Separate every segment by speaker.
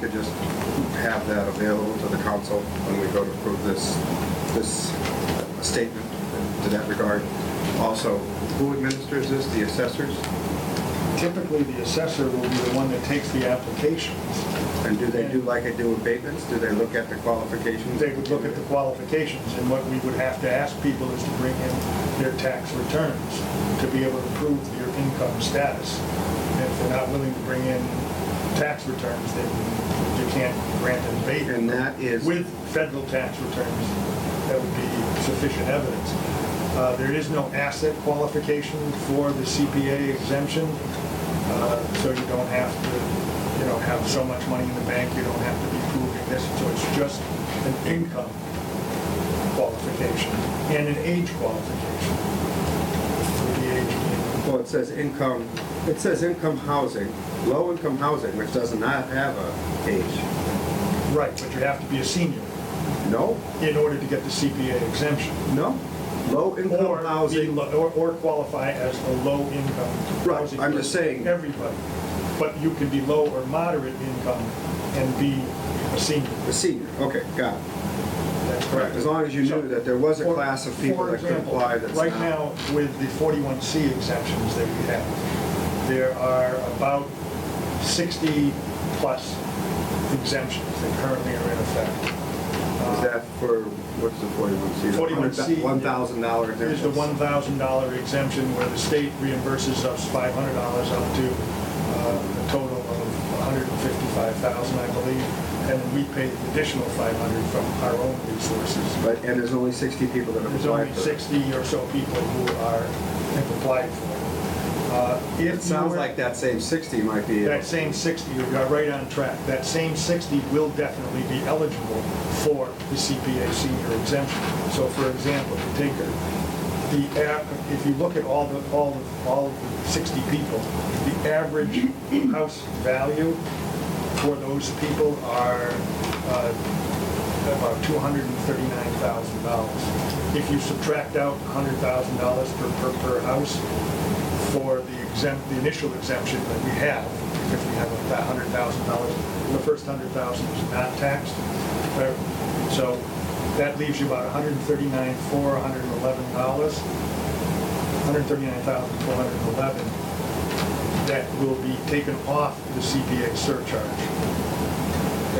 Speaker 1: could just have that available to the council when we go to approve this, this statement to that regard. Also, who administers this? The assessors?
Speaker 2: Typically, the assessor will be the one that takes the applications.
Speaker 1: And do they do like I do with Bateman's? Do they look at the qualifications?
Speaker 2: They would look at the qualifications, and what we would have to ask people is to bring in their tax returns to be able to prove your income status. And if they're not willing to bring in tax returns, then you can't grant an abatement.
Speaker 1: And that is-
Speaker 2: With federal tax returns, that would be sufficient evidence. Uh, There is no asset qualification for the CPA exemption, uh, so you don't have to, you know, have so much money in the bank, you don't have to be proving this, so it's just an income qualification and an age qualification. For the age,
Speaker 1: Well, it says income, it says income housing, low-income housing, which does not have a age.
Speaker 2: right, but you have to be a senior
Speaker 1: No,
Speaker 2: in order to get the CPA exemption.
Speaker 1: no,
Speaker 2: Or
Speaker 1: low-income
Speaker 2: be
Speaker 1: housing.
Speaker 2: lo- Or, or qualify as a low-income
Speaker 1: Right,
Speaker 2: housing.
Speaker 1: I'm just saying-
Speaker 2: Everybody. But you can be low or moderate income and be a senior.
Speaker 1: The senior, okay, got it.
Speaker 2: That's
Speaker 1: Right,
Speaker 2: correct.
Speaker 1: as long as you knew that there was a
Speaker 2: For-
Speaker 1: class of people
Speaker 2: for
Speaker 1: that could
Speaker 2: example,
Speaker 1: apply that's
Speaker 2: Right
Speaker 1: not.
Speaker 2: now, with the 41C exemptions that we have, there are about 60-plus exemptions that currently are in effect.
Speaker 1: Is that for, what's the forty-one C?
Speaker 2: 41C.
Speaker 1: One thousand dollar
Speaker 2: There's the one thousand dollar exemption where the state reimburses us five hundred dollars up to uh, a total of $155,000, I believe, and we pay the additional five hundred from our own resources.
Speaker 1: But, and there's only sixty people that have
Speaker 2: There's
Speaker 1: applied
Speaker 2: only
Speaker 1: for it.
Speaker 2: sixty or so people who are, have applied for it. Uh, if you
Speaker 1: It sounds
Speaker 2: were-
Speaker 1: like that same sixty might be,
Speaker 2: That same sixty, you got right on track, that same sixty will definitely be eligible for the CPA senior exemption. So for example, if you take a- the, a- if you look at all the, all, the- all of the sixty people, the average house value for those people are uh, about two hundred and thirty-nine thousand dollars. If you subtract out hundred thousand dollars per, per, per house, for the exempt, the initial exemption that we have, because we have about hundred thousand dollars, the first hundred thousand is not taxed. Uh, So that leaves you about $139,411, hundred and thirty-nine, four, hundred and eleven dollars, hundred and thirty-nine thousand, four hundred and eleven, that will be taken off the CPA surcharge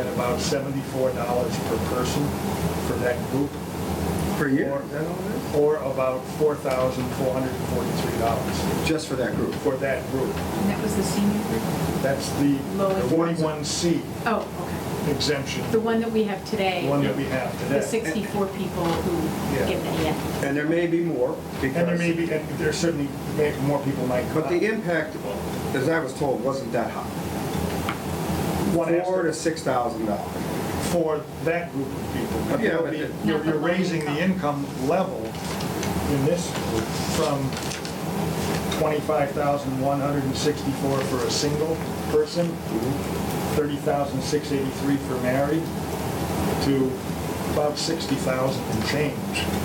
Speaker 2: at about seventy-four dollars per person for that group.
Speaker 1: per year,
Speaker 2: Or-
Speaker 1: is that all it
Speaker 2: Or about four thousand, four hundred and forty-three dollars
Speaker 1: is? Just for that group.
Speaker 2: for that group.
Speaker 3: And that was the senior group?
Speaker 2: That's the
Speaker 3: Lowest.
Speaker 2: 41C
Speaker 3: Oh,
Speaker 2: exemption,
Speaker 3: okay. The one that we have
Speaker 2: the
Speaker 3: today,
Speaker 2: one that we have
Speaker 3: the
Speaker 2: today.
Speaker 3: 64 people who
Speaker 2: Yeah.
Speaker 3: get that, yeah.
Speaker 1: And there may be more, because.
Speaker 2: And there may be, and there certainly, may- more people might come
Speaker 1: But
Speaker 2: out.
Speaker 1: the impact, as I was told, wasn't that high.
Speaker 2: One has
Speaker 1: Four
Speaker 2: to-
Speaker 1: to six thousand dollars.
Speaker 2: for that group of people. But
Speaker 1: Yeah,
Speaker 2: you'll
Speaker 1: but
Speaker 2: be-
Speaker 1: the-
Speaker 2: You're you're raising the income level in this group from 25,164 for a single person,
Speaker 1: Mm-hmm.
Speaker 2: 30,683 for married, to about 60,000 and change.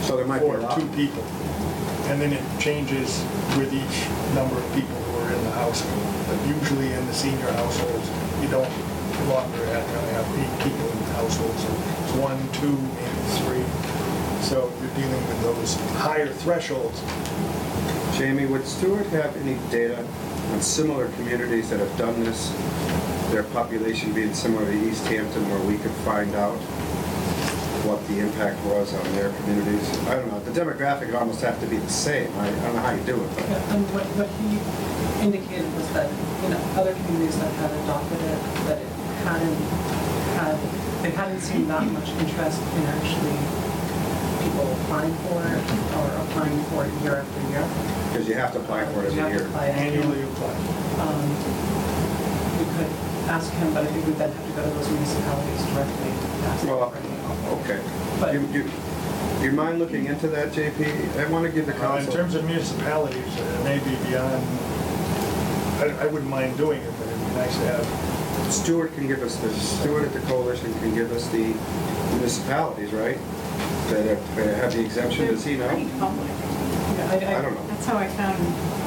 Speaker 1: So there might be a lot.
Speaker 2: For two people. And then it changes with each number of people who are in the household. But usually in the senior households, you don't longer have, have eight people in the household. So it's one, two, maybe three. So you're dealing with those higher thresholds.
Speaker 1: Jamie, would Stewart have any data on similar communities that have done this, their population being similar to East Hampton, where we could find out what the impact was on their communities? I don't know, the demographic would almost have to be the same, I I don't know how you do it, but
Speaker 4: And what, what he indicated was that, you know, other communities that had adopted it, that it hadn't had, they hadn't seen that much interest in actually people applying for it or applying for it year after year.
Speaker 1: because you have to apply for it
Speaker 4: You have
Speaker 1: every
Speaker 4: to
Speaker 1: year.
Speaker 4: apply every year.
Speaker 2: Annually applied.
Speaker 4: Um, We could ask him, but I think we'd then have to go to those municipalities directly to ask them
Speaker 1: Well,
Speaker 4: for it.
Speaker 1: okay.
Speaker 4: But-
Speaker 1: You, you, you mind looking into that, JP? I want to give the
Speaker 2: Now, in
Speaker 1: council.
Speaker 2: terms of municipalities, it may be beyond, I, I wouldn't mind doing it, but it'd be nice to have.
Speaker 1: Stewart can give us the, Stewart at the coalition can give us the municipalities, right? That have- that have the exemption, does he
Speaker 3: They're pretty
Speaker 1: know?
Speaker 3: public.
Speaker 4: Yeah,
Speaker 1: I don't know.
Speaker 3: That's how I found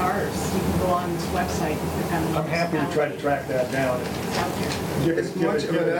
Speaker 3: ours. You can go on this website and click on.
Speaker 2: I'm happy to try to track that down and
Speaker 3: It's out there.
Speaker 2: give it-
Speaker 1: As
Speaker 2: give
Speaker 1: much
Speaker 2: it,
Speaker 1: of
Speaker 2: give
Speaker 1: an
Speaker 2: it